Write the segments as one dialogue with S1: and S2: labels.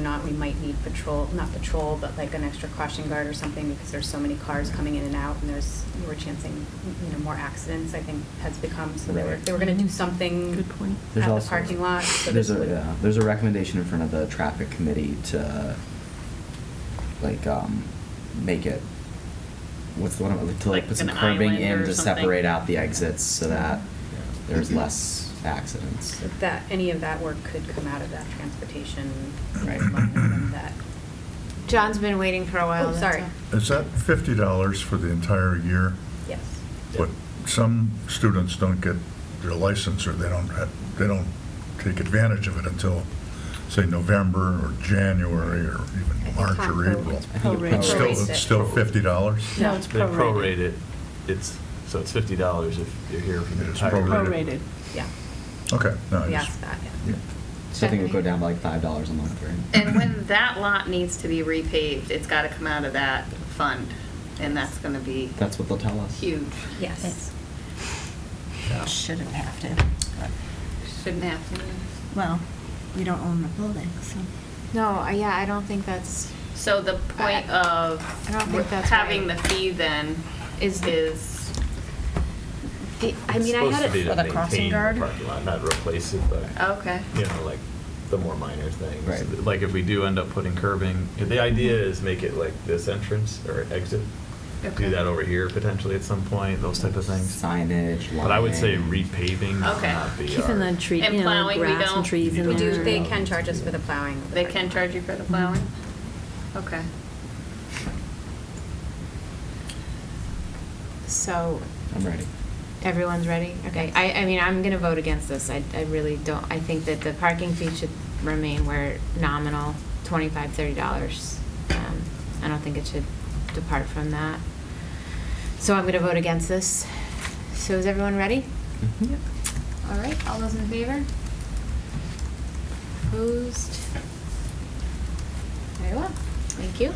S1: not, we might need patrol, not patrol, but like an extra caution guard or something because there's so many cars coming in and out and there's, you were chancing, you know, more accidents, I think, has become, so they were,
S2: Right.
S1: they were gonna do something
S3: Good point.
S2: There's
S1: at the
S2: also-
S1: parking lot. so
S2: There's
S1: this
S2: a,
S1: would-
S2: yeah, there's a recommendation in front of the traffic committee to, like, um, make it, what's the one, to like
S3: Like
S2: put some
S3: an
S2: curbing
S3: island
S2: in
S3: or
S2: to
S3: something.
S2: separate out the exits so that there's
S1: Mhm.
S2: less accidents.
S1: So That, any of that work could come out of that transportation
S2: Right.
S1: line item that,
S4: John's been waiting for a while.
S1: Oh,
S4: that's
S1: sorry.
S4: all.
S5: Is that fifty dollars for the entire year?
S1: yes.
S5: But some students don't get their license, or they don't, have- they don't take advantage of it until, say, November, or January, or
S1: I
S5: even
S1: think
S5: March or
S1: Concom-
S5: April.
S2: I think it
S3: Prorated.
S5: It's still,
S2: prorates.
S1: Prorates it.
S5: it's still fifty dollars?
S4: No, it's
S6: They prorate it, it's, so it's fifty dollars if you're here for the
S5: It's
S6: entire.
S5: prorated.
S3: Prorated.
S1: Yeah,
S5: Okay, no, I
S1: we
S5: just-
S1: asked that,
S2: Yeah.
S1: yeah.
S2: So I think it would go down by like five dollars a month, right?
S7: And when that lot needs to be repaved, it's got to come out of that fund, and that's going to be
S2: That's what they'll tell us.
S7: huge.
S1: Yes.
S8: Shouldn't have to.
S7: Shouldn't have to.
S8: Well, we don't own the building, so.
S4: No, I- yeah, I don't think that's,
S7: So the point
S4: I-
S7: of
S4: I don't think that's
S7: having the
S4: right.
S7: fee then is,
S4: Is-
S7: is,
S4: I- I mean, I had
S6: It's
S4: it,
S8: for
S6: supposed
S8: the
S6: to be to
S8: crossing
S6: maintain
S8: guard?
S6: the parking lot, not replace it, but,
S7: okay.
S6: you know, like, the more minor things.
S2: Right.
S6: Like, if we do end up putting curbing, the idea is make it like this entrance or exit.
S7: Okay.
S6: Do that over here potentially at some point, those type of things.
S2: Signage,
S6: But I would say
S2: lighting.
S6: repaving would
S7: Okay.
S6: not be our.
S3: Keeping the tree,
S7: And
S3: you know,
S7: plowing, we
S3: grass
S7: don't-
S3: and trees in
S6: We
S3: there.
S1: We do, they
S2: Yeah.
S1: can charge us for the plowing. of the
S7: They
S1: parking
S7: can
S1: lot.
S7: charge you for the plowing? Okay.
S4: so
S2: I'm ready.
S4: everyone's ready? Okay, I, I mean, I'm going to vote against this. I, I really don't, I think that the parking fee should remain where nominal, $25, $30. Um, I don't think it should depart from that. So I'm going to vote against this. So is everyone ready?
S2: Mhm.
S4: All right, all those in favor? Opposed? Very well, thank you.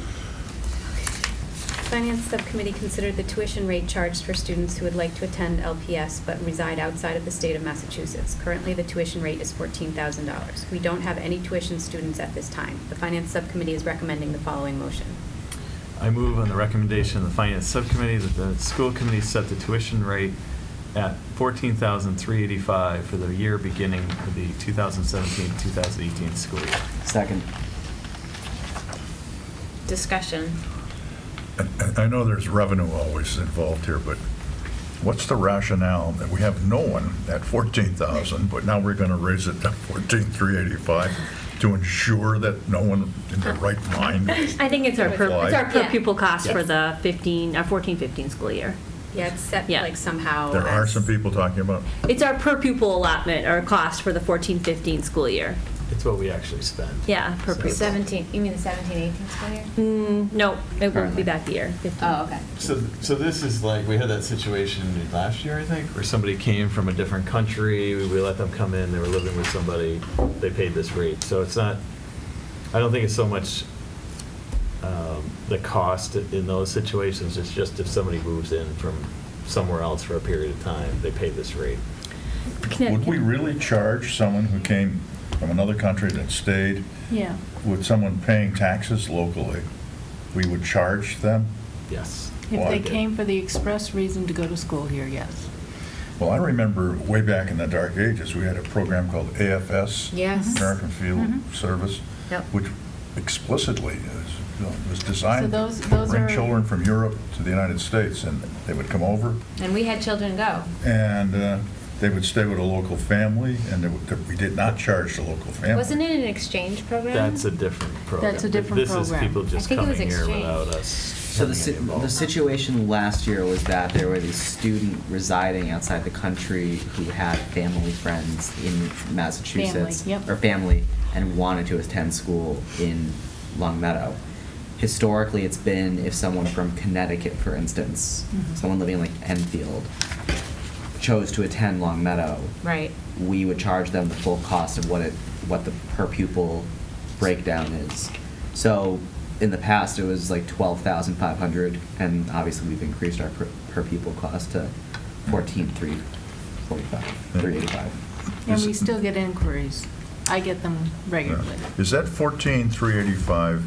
S1: Finance Subcommittee considered the tuition rate charged for students who would like to attend LPS but reside outside of the state of Massachusetts. Currently, the tuition rate is $14,000. We don't have any tuition students at this time. The Finance Subcommittee is recommending the following motion.
S6: I move on the recommendation of the Finance Subcommittee that the school committee set the tuition rate at $14,385 for the year beginning of the 2017-2018 school year.
S2: Second.
S4: Discussion.
S5: I- I know there's revenue always involved here, but what's the rationale that we have no one at 14,000, but now we're going to raise it to 14,385 to ensure that no one in their right mind?
S3: I think it's our per,
S5: Why?
S3: it's our per
S1: Yeah.
S3: pupil cost for
S6: Yeah.
S3: the 15, uh, 14, 15 school year.
S1: Yeah, it's set
S3: Yeah.
S1: like somehow.
S5: There are
S1: as-
S5: some people talking about,
S3: It's our per pupil allotment or cost for the 14, 15 school year.
S6: It's what we actually spend.
S3: Yeah, per
S6: So-
S3: pupil.
S4: 17, you mean the 17, 18 school year?
S3: Mm, no, it won't
S2: Currently.
S3: be back the year, 15.
S4: Oh, okay.
S6: So, so this is like, we had that situation last year, I think, where somebody came from a different country, we let them come in, they were living with somebody, they paid this rate. So it's not, I don't think it's so much um, the cost in those situations, it's just if somebody moves in from somewhere else for a period of time, they pay this rate.
S5: would
S3: Connecticut.
S5: we really charge someone who came from another country that stayed
S3: Yeah.
S5: with someone paying taxes locally? We would charge them?
S6: Yes.
S5: Well,
S9: If
S5: Oh, I
S9: they
S5: did.
S9: came for the express reason to go to school here, yes.
S5: Well, I remember way back in the dark ages, we had a program called AFS.
S4: Yes. Mm-hmm.
S5: American Field
S9: Mhm.
S5: Service.
S4: Yep.
S5: Which explicitly is, you know, was
S9: So
S5: designed
S9: those-
S5: to
S9: those
S5: bring
S9: are-
S5: children from Europe to the United States, and they would come over,
S4: And we had children go.
S5: and uh, they would stay with a local family, and they would- we did not charge the local family.
S4: Wasn't it an exchange program?
S6: That's a different program.
S9: That's a different
S6: This is
S9: program.
S6: people
S4: I
S6: just
S4: think it was
S6: coming here
S4: exchange.
S6: without us.
S2: So the,
S6: having
S2: si-
S6: any involvement.
S2: the situation last year was that there was a student residing outside the country who had family friends in Massachusetts.
S9: Family, yep.
S2: Or family, and wanted to attend school in Long Meadow. Historically, it's been if someone from Connecticut, for instance,
S9: Mhm.
S2: someone living in like Enfield, chose to attend Long Meadow,
S4: Right.
S2: we would charge them the full cost of what it, what the per pupil breakdown is. So in the past, it was like twelve thousand five hundred, and obviously we've increased our per, per pupil cost to fourteen three forty-five, three eighty-five.
S9: And we still get inquiries.
S4: I get them
S5: Yeah.
S4: regularly.
S5: Is that 14,385